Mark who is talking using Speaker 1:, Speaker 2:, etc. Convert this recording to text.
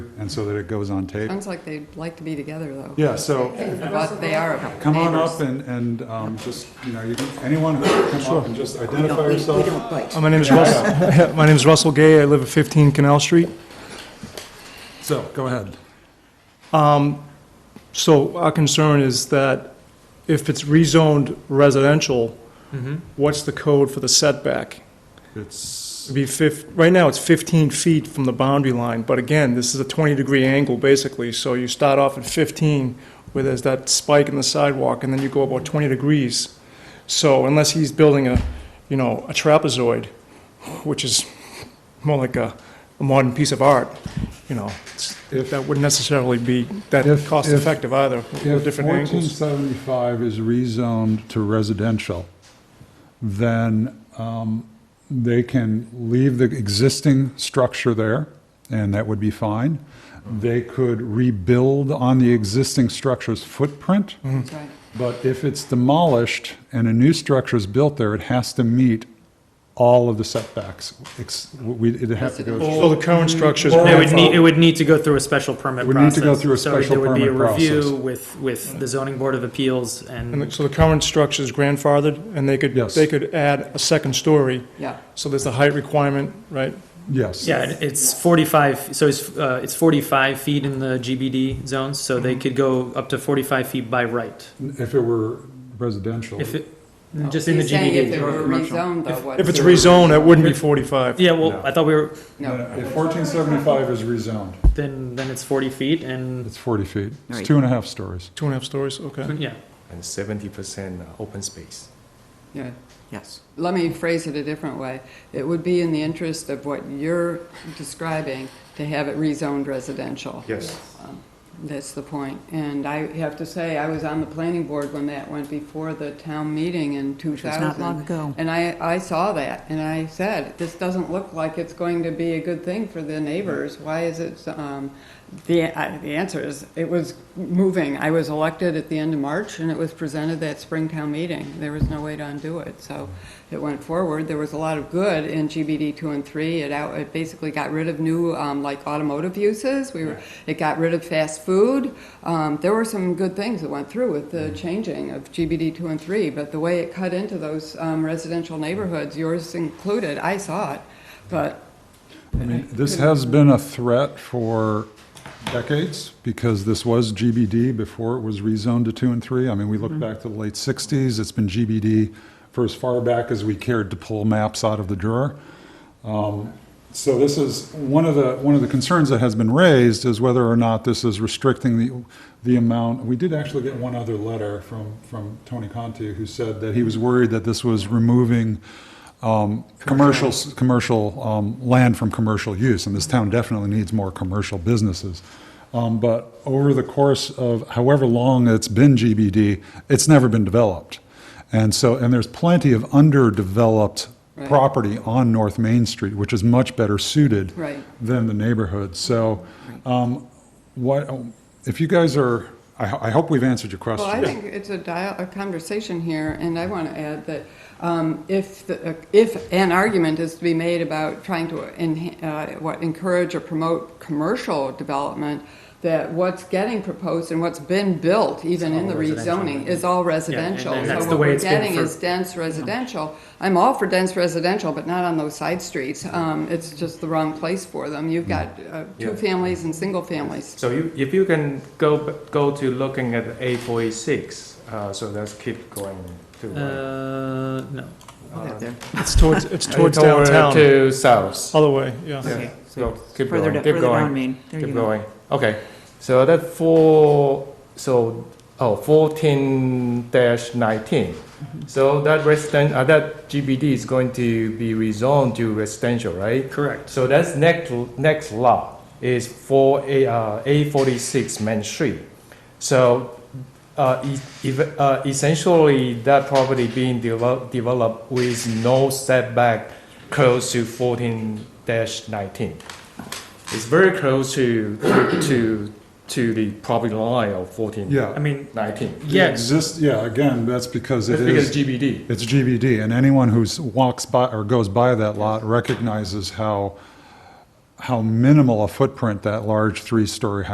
Speaker 1: so that it goes on tape.
Speaker 2: Sounds like they'd like to be together, though.
Speaker 1: Yeah, so
Speaker 2: But they are neighbors.
Speaker 1: come on up and, and um, just, you know, you can, anyone who can come up and just identify yourself.
Speaker 3: bite.
Speaker 4: Uh, My name is Russell, my name is Russell Gay, I live at 15 Canal Street.
Speaker 1: So, go ahead.
Speaker 4: So our concern is that if it's rezoned residential, what's the code for the setback?
Speaker 1: It's,
Speaker 4: It'd be fif, right now it's 15 feet from the boundary line, but again, this is a 20-degree angle basically, so you start off at 15 where there's that spike in the sidewalk, and then you go about 20 degrees. So unless he's building a, you know, a trapezoid, which is more like a, a modern piece of art, you know, it's- that wouldn't necessarily be that
Speaker 1: If- if-
Speaker 4: cost-effective either, with
Speaker 1: if
Speaker 4: different
Speaker 1: fourteen
Speaker 4: angles.
Speaker 1: seventy-five is rezoned to residential, then um, they can leave the existing structure there, and that would be fine. They could rebuild on the existing structure's footprint.
Speaker 4: Mm-hmm.
Speaker 2: That's right.
Speaker 1: But if it's demolished and a new structure is built there, it has to meet all of the setbacks. Ex- we- It'd have to go,
Speaker 4: So the current structure is
Speaker 1: Or-
Speaker 5: It would need, it
Speaker 4: grandfathered.
Speaker 5: would need to go through a special permit
Speaker 1: Would
Speaker 5: process.
Speaker 1: need to go through a
Speaker 5: So
Speaker 1: special
Speaker 5: There
Speaker 1: permit
Speaker 5: would be a review
Speaker 1: process.
Speaker 5: with, with the zoning board of appeals
Speaker 4: And the-
Speaker 5: and,
Speaker 4: so the current structure is grandfathered, and they could,
Speaker 1: Yes.
Speaker 4: they could add a second story,
Speaker 2: Yeah,
Speaker 4: so there's a height requirement, right?
Speaker 1: yes.
Speaker 5: yeah, it- it's forty-five, so it's, uh, it's forty-five feet in the GBD zones, so they
Speaker 1: Mm-hmm.
Speaker 5: could go up to forty-five feet by right.
Speaker 1: If it were residential.
Speaker 5: If it, just in the
Speaker 2: He's saying if
Speaker 5: GBD.
Speaker 2: they
Speaker 5: or
Speaker 2: were
Speaker 5: commercial.
Speaker 2: rezoned, though, what?
Speaker 4: If it's rezoned, it wouldn't be 45.
Speaker 5: Yeah, well, I thought we were,
Speaker 2: No,
Speaker 1: If 1475 is rezoned,
Speaker 5: then, then it's forty feet and,
Speaker 1: it's 40 feet. It's
Speaker 3: Right.
Speaker 1: two and a half stories.
Speaker 4: Two and a half stories, okay.
Speaker 5: yeah.
Speaker 6: and 70% open space.
Speaker 2: yeah.
Speaker 3: Yes.
Speaker 2: Let me phrase it a different way. It would be in the interest of what you're describing to have it rezoned residential.
Speaker 6: Yes.
Speaker 2: That's the point. And I have to say, I was on the planning board when that went before the town meeting in
Speaker 3: was not
Speaker 2: 2000.
Speaker 3: long ago.
Speaker 2: And I, I saw that, and I said, this doesn't look like it's going to be a good thing for the neighbors. Why is it, um, the, I- the answer is, it was moving. I was elected at the end of March, and it was presented that spring town meeting. There was no way to undo it, so it went forward. There was a lot of good in GBD two and three. It out, it basically got rid of new, um, like automotive uses. We were, it got rid of fast food. Um, there were some good things that went through with the changing of GBD two and three, but the way it cut into those, um, residential neighborhoods, yours included, I saw it. But
Speaker 1: I mean, this has been a threat for decades because this was GBD before it was rezoned to two and three. I mean, we look back to the late sixties, it's been GBD for as far back as we cared to pull maps out of the drawer. Um, So this is, one of the, one of the concerns that has been raised is whether or not this is restricting the, the amount. We did actually get one other letter from, from Tony Conti who said that he was worried that this was removing commercial, commercial um, land from commercial use, and this town definitely needs more commercial businesses. Um, But over the course of however long it's been GBD, it's never been developed. And so, and there's plenty of underdeveloped
Speaker 2: Right.
Speaker 1: property on North Main Street, which is much better suited
Speaker 2: Right.
Speaker 1: than the neighborhood. So um, what, if you guys are, I I hope we've answered your question.
Speaker 2: Well, I think it's a dial, a conversation here, and I want to add that um, if, the- if an argument is to be made about trying to, enha- uh, what, encourage or promote commercial development, that what's getting proposed and what's been built, even in the
Speaker 5: residential.
Speaker 2: rezoning, is all residential.
Speaker 5: and that's
Speaker 2: So
Speaker 5: the
Speaker 2: what
Speaker 5: way
Speaker 2: we're
Speaker 5: it's been
Speaker 2: getting
Speaker 5: for-
Speaker 2: is dense residential. I'm all for dense residential, but not on those side streets. Um, It's just the wrong place for them.
Speaker 5: Mm.
Speaker 2: You've got uh, two
Speaker 6: Yeah.
Speaker 2: families and single families.
Speaker 6: So you, if you can go, b- go to looking at A46, uh, so let's keep going to uh, right.
Speaker 5: Uh, no.
Speaker 3: Out there.
Speaker 4: It's towards, it's
Speaker 6: Uh,
Speaker 4: towards
Speaker 6: toward-
Speaker 4: downtown, Oh,
Speaker 6: To south.
Speaker 4: other way, yeah.
Speaker 3: Okay.
Speaker 6: Go, keep
Speaker 3: Further
Speaker 6: going,
Speaker 3: down-
Speaker 6: keep
Speaker 3: Further down
Speaker 6: going,
Speaker 3: Main. There you
Speaker 6: keep
Speaker 3: go.
Speaker 6: going. Okay, so that four, so, oh, 14 dash 19. So that resident, uh, that GBD is going to be rezoned to residential, right?
Speaker 5: Correct.
Speaker 6: So that's next, next lot is for A, uh, A46 Main Street. So, uh, e- ev- uh, essentially that property being developed, developed with no setback close to 14 19. It's very close to, to, to the property line of 14
Speaker 5: I
Speaker 1: Yeah.
Speaker 5: mean,
Speaker 6: 19.
Speaker 1: The
Speaker 5: yeah,
Speaker 1: exist- Yeah, again, that's because it
Speaker 6: That's
Speaker 1: is.
Speaker 6: because GBD.
Speaker 1: It's GBD, and anyone who's walks by or goes by that lot recognizes how, how minimal a footprint that large three-story house